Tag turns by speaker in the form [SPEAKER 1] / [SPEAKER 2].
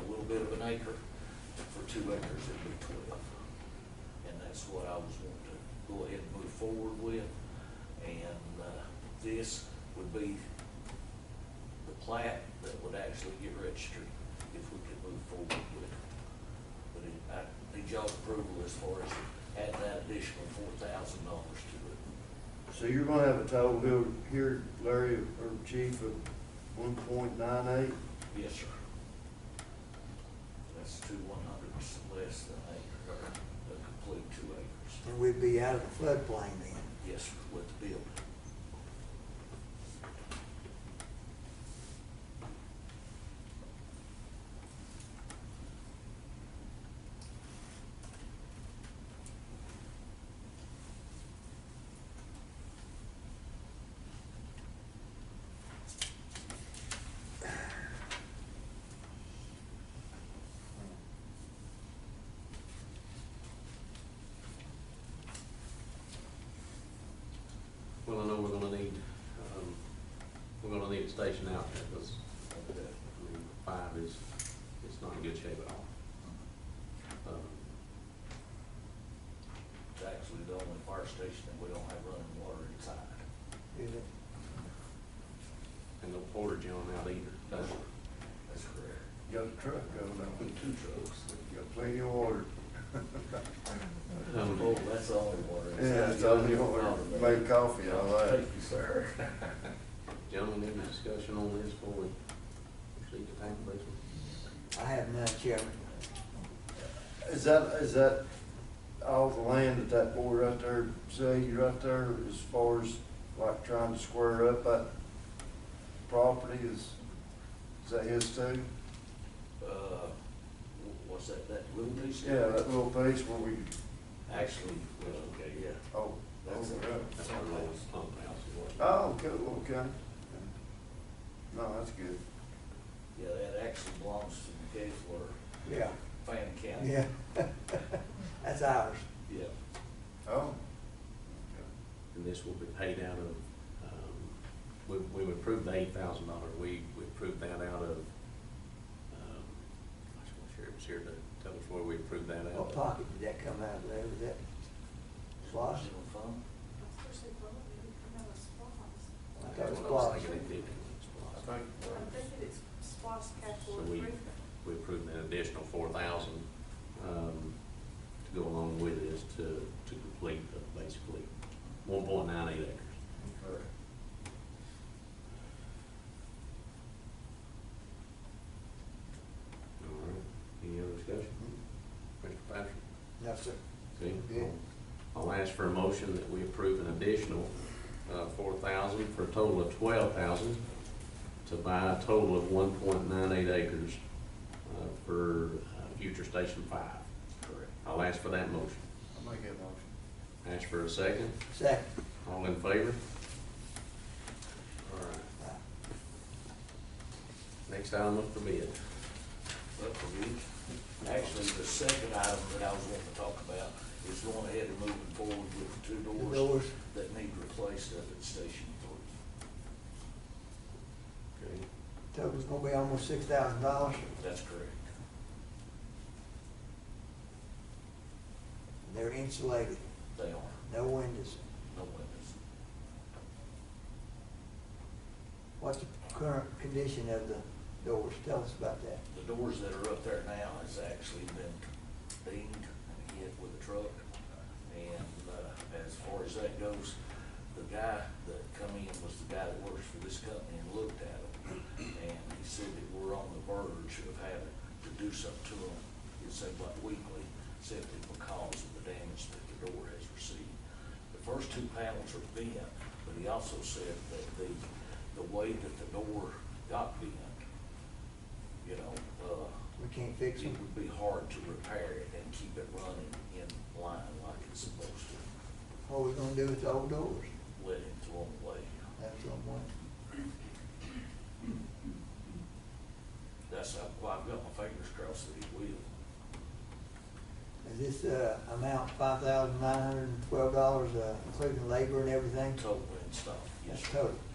[SPEAKER 1] an acre, for two acres it'd be twelve. And that's what I was wanting to go ahead and move forward with. And, uh, this would be the plat that would actually get registered if we could move forward with it. But it, I need y'all's approval as far as adding that additional four thousand dollars to it.
[SPEAKER 2] So you're gonna have a total bill here, Larry, or chief, of one point nine eight?
[SPEAKER 1] Yes, sir. That's two one hundredths less than acre, or a complete two acres.
[SPEAKER 3] And we'd be out of the floodplain then.
[SPEAKER 1] Yes, sir, with the building.
[SPEAKER 4] Well, I know we're gonna need, um, we're gonna need a station out there, because,
[SPEAKER 1] uh,
[SPEAKER 4] I mean, five is, it's not in good shape at all. Um,
[SPEAKER 1] It's actually the only fire station that we don't have running water inside.
[SPEAKER 3] Is it?
[SPEAKER 4] And no portage on out either.
[SPEAKER 1] No, sir. That's correct.
[SPEAKER 2] Got a truck going on,
[SPEAKER 1] Two trucks.
[SPEAKER 2] got plenty of water.
[SPEAKER 4] Um,
[SPEAKER 1] Oh, that's the only water. inside.
[SPEAKER 2] Yeah, it's all the water, make coffee, all that.
[SPEAKER 1] Thank you, sir.
[SPEAKER 4] Gentlemen, any discussion on this before we proceed to tank basement?
[SPEAKER 3] I have none, Chairman.
[SPEAKER 2] Is that, is that all the land that that boy right there, say, right there, as far as like trying to square up that property is, is that his too?
[SPEAKER 1] Uh, wh- what's that, that little piece?
[SPEAKER 2] Yeah, that little piece where we,
[SPEAKER 1] Actually, uh, yeah.
[SPEAKER 2] oh,
[SPEAKER 1] That's
[SPEAKER 2] over
[SPEAKER 1] it.
[SPEAKER 2] there.
[SPEAKER 4] That's our lowest pump house, is what.
[SPEAKER 2] Oh, okay, okay. No, that's good.
[SPEAKER 1] Yeah, that actually belongs to the Gaylord
[SPEAKER 3] Yeah,
[SPEAKER 1] Fan County.
[SPEAKER 3] yeah. That's ours.
[SPEAKER 1] Yeah.
[SPEAKER 2] Oh.
[SPEAKER 4] And this will be paid out of, um, we, we approved the eight thousand dollar, we, we approved that out of, um, I just want to share, it was here to tell us where we approved that out of.
[SPEAKER 3] What pocket did that come out of there? Was that SLOSS?
[SPEAKER 1] Original fund.
[SPEAKER 5] Especially probably because it's SPOS.
[SPEAKER 3] I thought it
[SPEAKER 4] That's
[SPEAKER 3] was
[SPEAKER 4] what I was
[SPEAKER 3] SLOS.
[SPEAKER 4] thinking, it did come
[SPEAKER 1] I
[SPEAKER 4] from SPLOST.
[SPEAKER 1] think,
[SPEAKER 5] I'm
[SPEAKER 2] uh,
[SPEAKER 5] thinking it's SPOS
[SPEAKER 4] So
[SPEAKER 5] capital
[SPEAKER 4] we,
[SPEAKER 5] improvement.
[SPEAKER 4] we approved an additional four thousand, um, to go along with this to, to complete the, basically, one point nine eight acres.
[SPEAKER 2] Okay.
[SPEAKER 4] All right, any other discussion? Mr. Patrick?
[SPEAKER 3] No, sir.
[SPEAKER 4] Okay.
[SPEAKER 3] Yeah.
[SPEAKER 4] I'll ask for a motion that we approve an additional uh, four thousand for a total of twelve thousand to buy a total of one point nine eight acres uh, for uh, future Station Five.
[SPEAKER 1] correct.
[SPEAKER 4] I'll ask for that motion.
[SPEAKER 2] I'll make that motion.
[SPEAKER 4] Ask for a second.
[SPEAKER 3] Second.
[SPEAKER 4] All in favor? All right. Next item up for bid.
[SPEAKER 1] But for me, actually, the second item that I was wanting to talk about is going ahead and moving forward with the two
[SPEAKER 3] The
[SPEAKER 1] doors
[SPEAKER 3] doors,
[SPEAKER 1] that need replaced up at Station Three.
[SPEAKER 4] Okay.
[SPEAKER 3] total's gonna be almost six thousand dollars.
[SPEAKER 1] That's correct.
[SPEAKER 3] They're insulated,
[SPEAKER 1] They are,
[SPEAKER 3] no windows.
[SPEAKER 1] no windows.
[SPEAKER 3] What's the current condition of the doors? Tell us about that.
[SPEAKER 1] The doors that are up there now has actually been dinged and hit with a truck. And, uh, as far as that goes, the guy that come in was the guy that works for this company and looked at them. And he said that we're on the verge of having to do something to them, it seemed like weekly, simply because of the damage that the door has received. The first two panels are bent, but he also said that the, the way that the door got bent, you know, uh,
[SPEAKER 3] We can't
[SPEAKER 1] it
[SPEAKER 3] fix them.
[SPEAKER 1] would be hard to repair it and keep it running in line like it's supposed to,
[SPEAKER 3] What are we gonna do with the old doors?
[SPEAKER 1] let him throw them away.
[SPEAKER 3] That's what I'm wondering.
[SPEAKER 1] That's, how- well, I've got my fingers crossed that he will.
[SPEAKER 3] Is this uh, amount five thousand nine hundred and twelve dollars, uh, including labor and everything?
[SPEAKER 1] Totally installed, yes,
[SPEAKER 3] That's
[SPEAKER 1] sir.
[SPEAKER 3] total.